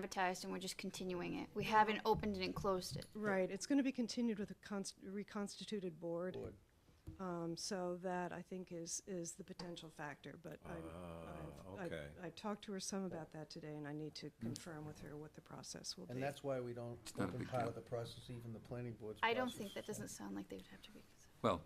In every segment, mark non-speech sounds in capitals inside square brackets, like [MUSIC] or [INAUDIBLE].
advertised and we're just continuing it. We haven't opened it and closed it. Right, it's going to be continued with a const- reconstituted board. Board. Um, So that, I think, is, is the potential factor, but I'm- Ah, I've- okay. I I talked to her some about that today, and I need to confirm with her what the process will be. And that's why we don't not a open big part deal. of the process, even the planning board's I don't process. think, that doesn't sound like they would have to be. Well,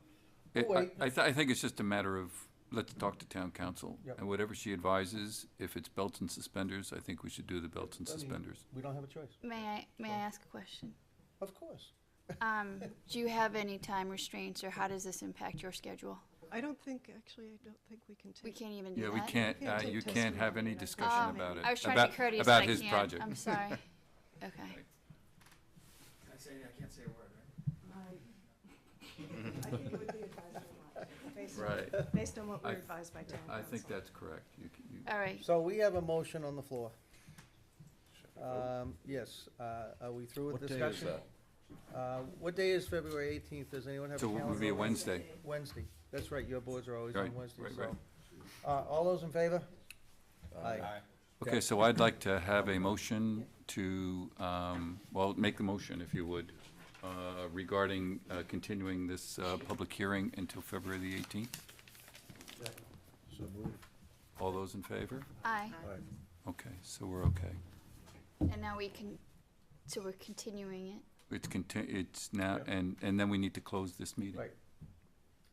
Oh, it- wait. I, I, th- I think it's just a matter of, let's talk to town council. Yep. And whatever she advises, if it's belts and suspenders, I think we should do the belts and I mean, suspenders. We don't have a choice. May I, may I ask a question? Of course. Um, do you have any time restraints or how does this impact your schedule? I don't think, actually, I don't think we can We take, can't even do Yeah, that? we can't, can't uh, take you can't have testimony and any I- Oh, discussion about it. I was trying to about- be courteous, about and I his can't. Um, project. I'm sorry. Okay. I say, I can't say a word, right? I think it would be advisable not to, based on- [LAUGHS] Right, based on what we're I- advised by town I council. think that's correct. You c- you- All right. So we have a motion on the floor. Um, yes, uh, are we through with What day is discussion? that? Uh, what day is February eighteenth? Does anyone have a So calendar? it would be a Wednesday. Wednesday. That's right, your boards are always on Right, Wednesday, right, so. right. Uh, all those in favor? Uh, Aye. Okay, so I'd like to have a motion to, um, well, make the motion, if you would, uh, regarding uh, continuing this uh, public hearing until February the 18th. So move. All those in favor? Aye. Okay, so we're okay. And now we can, so we're continuing it. It's conti- it's now, Yeah. and, and then we need to close this meeting. Right.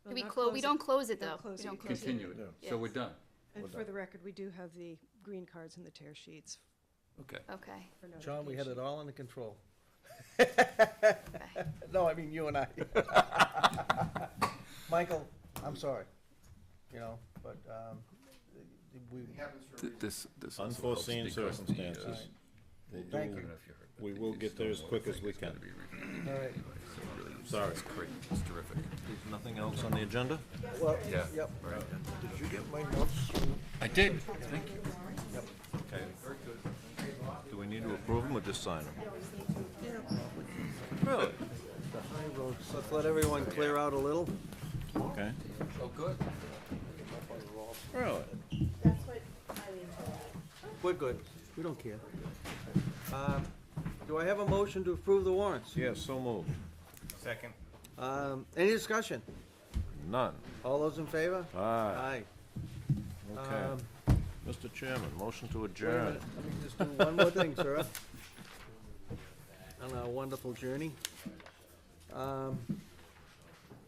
We'll We not close, we it. don't close it Don't though. close We it. don't close it. Continue it, Yeah. so we're Yes. done, And for the record, we do have the green cards and the tear sheets okay. Okay. for John, we had it notification. all under control. No, I mean, you and I. Michael, I'm sorry, you know, but, um, we, It happens for a Th- reason. This, this also helps Unforeseen because the, uh, circumstances. the- Thank I don't you. know if you heard, but We the will get there as stormwater quick as thing we is gonna can. be reviewed all right, anyway, so it really- Sorry. It's great, it's terrific, Nothing else on the agenda? well, yeah. yep. very good. Did you get my notes? I did, thank you. Okay. Do we need to approve them or just sign them? Really? The high road, let's let everyone clear out a little. Okay. Oh, good. Really? We're good, we don't care. Um, do I have a motion to approve the warrants? Yeah, so moved. Second. Um, any discussion? None. All those in favor? Aye. Aye. Um, Okay. Mr. Chairman, motion to Wait a adjourn. minute, let me just do one more thing, sir. [LAUGHS] On our wonderful journey. Um,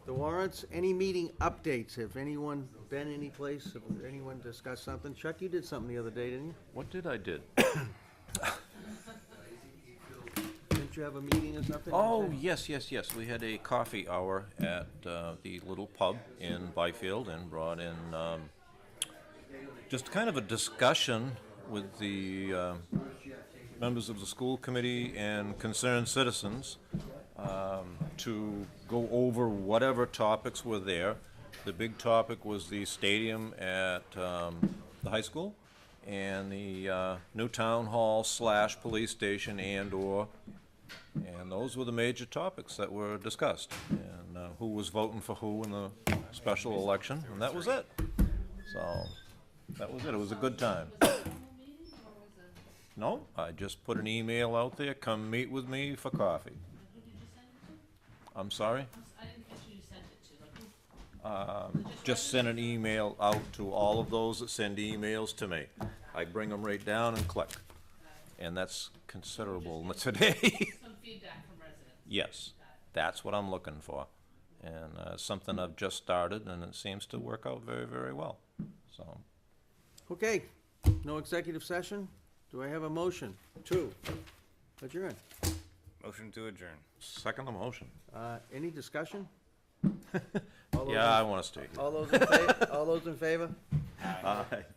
The warrants, any meeting updates, have anyone been anyplace, have anyone discussed something? Chuck, you did something the other day, didn't you? What did I did? Didn't you have a meeting or something? Oh, yes, yes, yes. We had a coffee hour at uh, the little pub in Byfield and brought in um, just kind of a discussion with the uh, members of the school committee and concerned citizens um, to go over whatever topics were there. The big topic was the stadium at um, the high school and the uh, new town hall slash police station and/or and those were the major topics that were discussed, and uh, who was voting for who in the special election, and that was it. So, that was it, it was a good time. No, I just put an email out there, come meet with me for coffee. I'm sorry? I didn't catch who you sent it to, like, Um, Just send an email out to all of those that send emails to me. I bring them right down and click, and that's considerable today. [LAUGHS] some feedback from residents. Yes, that's what I'm looking for. And uh, something I've just started, and it seems to work out very, very well. So, Okay, no executive session? Do I have a motion? Two. Adjourn. Motion to adjourn. second the motion. Uh, any discussion? All those Yeah, I in- want to stay. [LAUGHS] All those in fa- all those in favor? Aye.